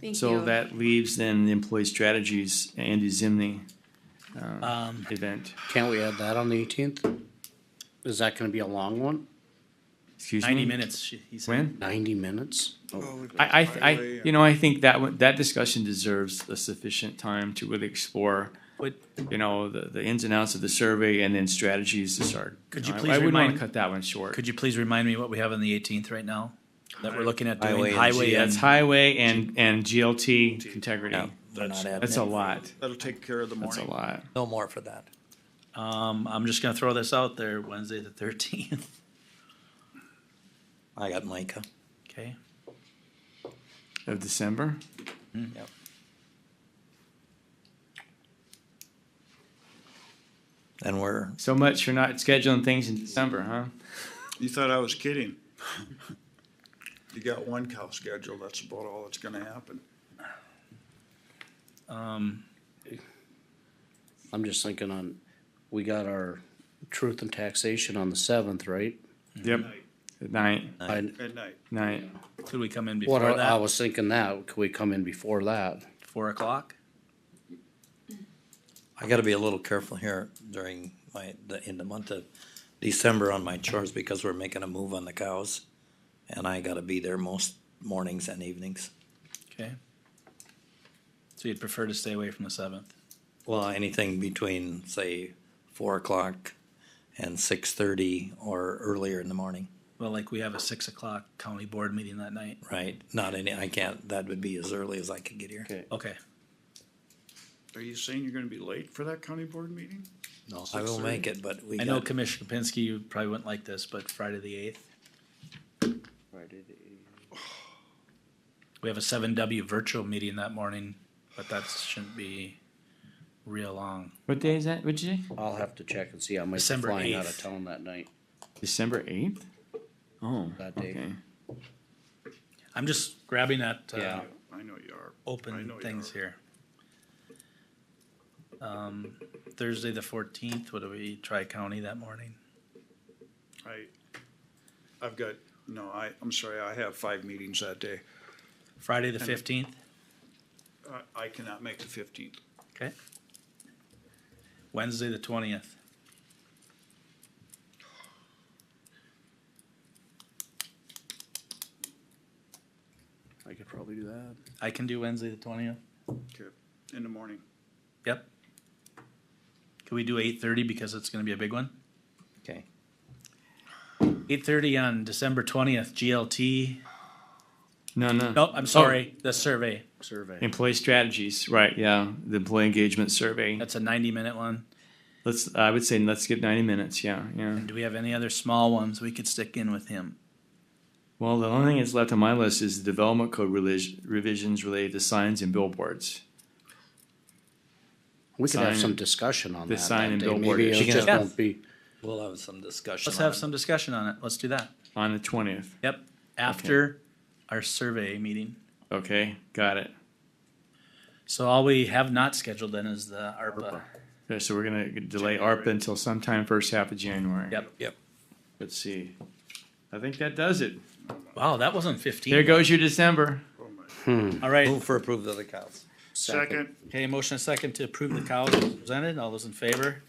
Thank So you. that leaves then the employee strategies, Andy Zimney Um, event. Can't we add that on the eighteenth? Is that gonna be a long one? Excuse me? ninety minutes, she- he said. When? Ninety minutes? Oh. I, I, th- I, you know, I think that, one- that discussion deserves a sufficient time to really explore, But you know, the, the ins and outs of the survey and then strategies to start. Could you I- please I wouldn't want to remind- cut that one short. could you please remind me what we have on the eighteenth right now? That we're looking at Highway doing and highway Yeah, it's and, highway and, and GLT Yeah, integrity. they're not having That's a it. lot. That'll take care of the That's a morning. lot. No more for that. um, I'm just gonna throw this out there, Wednesday the thirteenth, I got Micah. okay? Of December? Yep. And we're, So much for not scheduling things in December, huh? You thought I was kidding. You got one cow scheduled, that's about all that's gonna happen. Um, I'm just thinking on, we got our truth and taxation on the seventh, right? Yep. At night, I, At night. night. could we come in what, before I I that, was thinking that, could we come in before that? four o'clock? I gotta be a little careful here during my, the- in the month of December on my chores because we're making a move on the cows. And I gotta be there most mornings and evenings. Okay. So you'd prefer to stay away from the seventh? Well, anything between, say, four o'clock and six thirty or earlier in the morning, Well, like we have a six o'clock county board meeting that night. right? Not any, I can't, that would be as early as I could get here. Okay. Okay, Are you saying you're gonna be late for that county board meeting? No, I will 6:30. make it, but we I know got, Commissioner Kapinski, you probably wouldn't like this, but Friday the eighth, we have a seven W virtual meeting that morning, but that shouldn't be real long. What day is that? What'd you say? I'll have to check and see, I might be December flying out 8th. of town that night. December eighth? Oh, That day. okay. I'm just grabbing at, uh, Yeah. I know you are. I open know you things are. here. Um, Thursday the fourteenth, what do we, tri-county that morning? I, I've got, no, I, I'm sorry, I have five meetings that day. Friday the fifteenth? I, I cannot make the fifteenth. Okay. Wednesday, the twentieth. I could probably do that. I can do Wednesday, the twentieth. In the morning. Yep. Can we do eight thirty because it's gonna be a big one? okay. Eight thirty on December twentieth, GLT. No, no. Nope, Oh, I'm sorry, the survey. Survey. Employee strategies, right, yeah, the employee engagement survey. That's a ninety-minute one. Let's, I would say, let's get ninety minutes, yeah, yeah. And do we have any other small ones we could stick in with him? Well, the only thing that's left on my list is the development code relis- revisions related to signs and billboards. We could have Sign- some discussion on the that sign that and day. billboard Maybe it issue. just Yeah. won't be, We'll have some discussion. Let's on have it. some discussion on it. Let's do that. On the twentieth, Yep, after our survey meeting. okay, got it. So all we have not scheduled then is the ARPA. Okay, so we're gonna delay ARPA until sometime first half of January. Yep. Yep. Let's see. I think that does it. Wow, that wasn't fifteen. There goes your December. Oh my. All right. Move for approval of the cows. Second. Okay, motion and second to approve the cows presented. All those in favor?